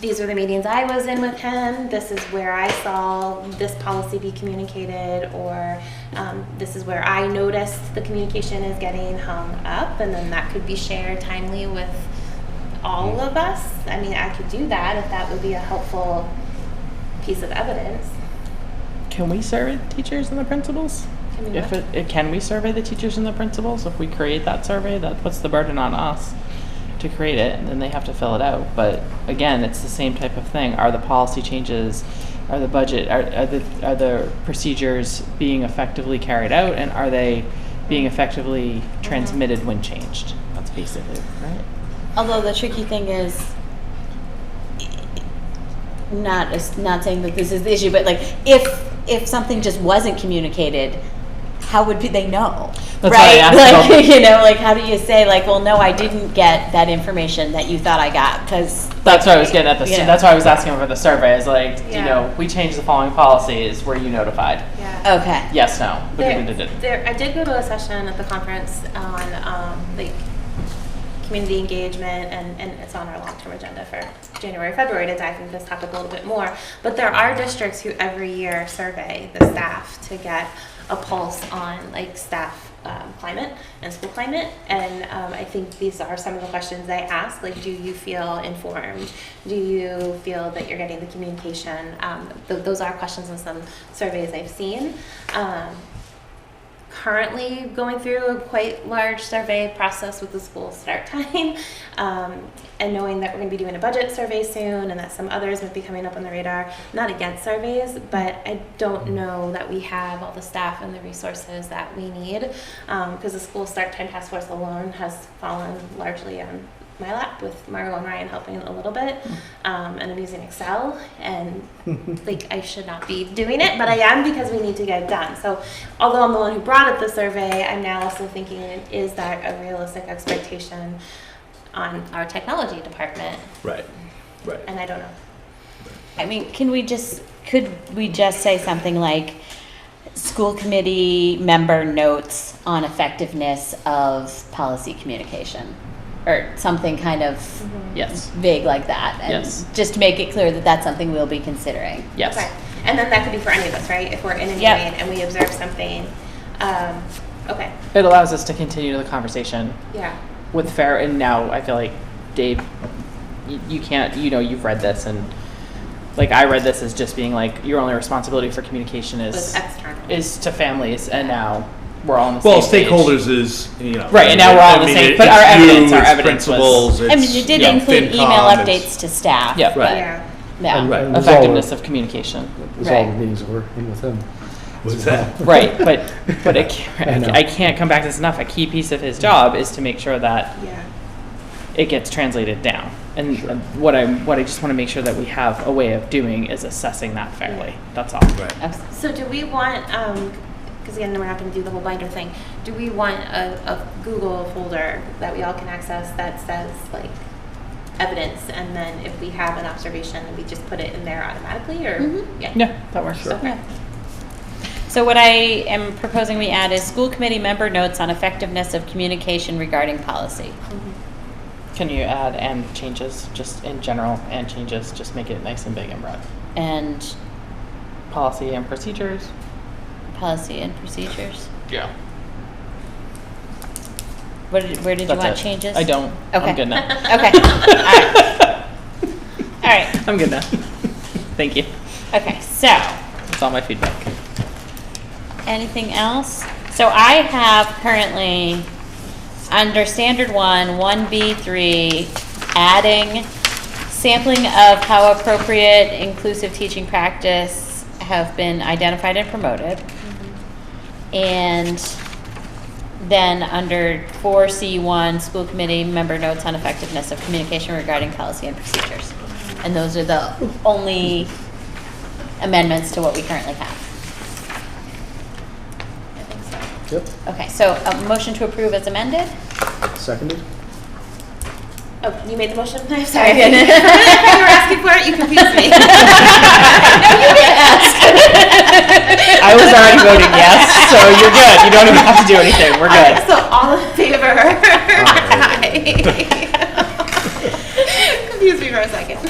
these are the meetings I was in with him, this is where I saw this policy be communicated, or um, this is where I noticed the communication is getting hung up, and then that could be shared timely with all of us. I mean, I could do that if that would be a helpful piece of evidence. Can we survey the teachers and the principals? Can we If look? it, it can we survey the teachers and the principals? If we create that survey, that puts the burden on us to create it, and then they have to fill it out. But again, it's the same type of thing. Are the policy changes, are the budget, are, are the are the procedures being effectively carried out, and are they being effectively transmitted when changed? That's basically right. Although the tricky thing is not it's not saying that this is the issue, but like if if something just wasn't communicated, how would pe- they know? That's why I right? asked like about- you know, like how do you say like, well, no, I didn't get that information that you thought I got because That's what I was getting at. The Yeah. that's why I was asking for the survey. Is like you Yeah. know we changed the following policies. Were you notified? Yeah. okay, Yes. No. There, there, I did go to a session at the conference on um, like community engagement, and, and it's on our long-term agenda for January, February to dive into this topic a little bit more. But there are districts who every year survey the staff to get a pulse on like staff um, climate and school climate. And um, I think these are some of the questions they ask, like, do you feel informed? Do you feel that you're getting the communication? Um, th- those are questions in some surveys I've seen. Um, currently going through a quite large survey process with the school start time um, and knowing that we're going to be doing a budget survey soon and that some others might be coming up on the radar not against surveys but i don't know that we have all the staff and the resources that we need because the school start time task force alone has fallen largely on my lap with Margo and Ryan helping a little bit, um, and I'm using Excel, and like I should not be doing it, but I am because we need to get it done. So, although I'm the one who brought up the survey, I'm now also thinking, is that a realistic expectation on our technology department? Right, right. And I don't know. I mean, can we just could we just say something like school committee member notes on effectiveness of policy communication or something kind of Yes. vague like that and Yes. just make it clear that that's something we'll be considering. Yes. Okay. And then that could be for any of us, right? If we're in a meeting Yeah. and we observe something. Um, okay. It allows us to continue the conversation Yeah. with fair. And now I feel like Dave, you, you can't. You know, you've read this, and like I read this as just being like your only responsibility for communication Was is external. is to families, and now we're all on the Well, same page. stakeholders is, you know. Right, and now we're all I the mean, same, it- but it's our evidence- you, our it's evidence was- Principals, I mean, it's, you did know, include email FinCom, it's- updates to staff. Yeah. but- Right. Yeah. Yeah. And- And it was all- effectiveness of communication. It was all the Right. meetings that were in with him. What's that? Right, but but I I can't, know. I can't come back to this enough. A key piece of his job is to make sure that Yeah. it gets translated down. And uh, what I what I just want to make sure that we have a way of doing is assessing that fairly. That's all. Right. Okay. So do we want, because again, we're not going to do the whole binder thing, do we want a, a Google folder that we all can access that says like evidence and then if we have an observation, we just put it in there automatically or? Mm-hmm. Mhm. Yeah. Yeah, that works. Sure. Yeah. So what I am proposing we add is school committee member notes on effectiveness of communication regarding policy. Mhm. Can you add and changes just in general and changes? Just make it nice and big and broad. And Policy and procedures. Policy and procedures. Yeah. What did, where did you want changes? I don't. Okay. I'm good now. Okay. All right. All right. I'm good now. Thank you. Okay. So, That's all my feedback. anything else? So I have currently under standard one, one B three, adding sampling of how appropriate inclusive teaching practice have been identified and promoted. And then under 4C1, school committee member notes on effectiveness of communication regarding policy and procedures. And those are the only amendments to what we currently have. I think so. Yep, Okay, so a motion to approve as amended? seconded. Oh, you made the motion? I'm sorry. did. You were asking for it, you confused me. I was already voting yes, so you're good. You don't even have to do anything. We're Alright, So good. all in favor? Aye. Confused me for a second.